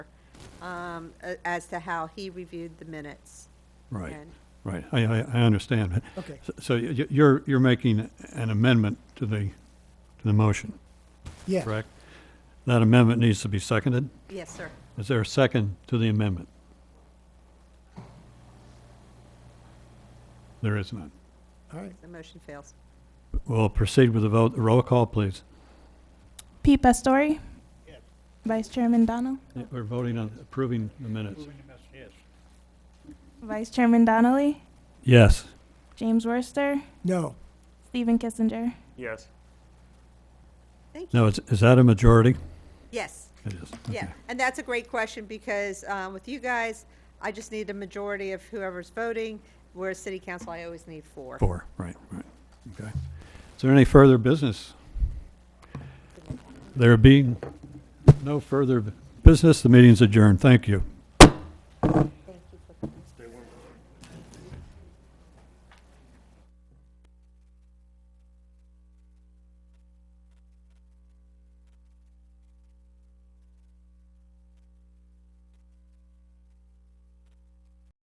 um, a- as to how he reviewed the minutes. Right, And- right. I, I, I understand. Okay. So- So y- y- you're, you're making an amendment to the, to the motion, Yeah. correct? That amendment needs to be seconded. Yes, sir. Is there a second to the amendment? There is none. All right. The motion fails. We'll proceed with the vote. Roll call, please. Pete Pastore. Vice Chairman Donnell. Yeah, We're voting on approving the minutes. Vice Chairman Donnelly. Yes. James Worster. No. Stephen Kissinger. Yes. Thank you. Now, is, is that a majority? Yes, It is. yeah. Okay. And that's a great question because uh, with you guys, I just need a majority of whoever's voting. Whereas city council, I always need four. Four, right, right. Okay. Is there any further business? There being no further business, the meeting's adjourned. Thank you.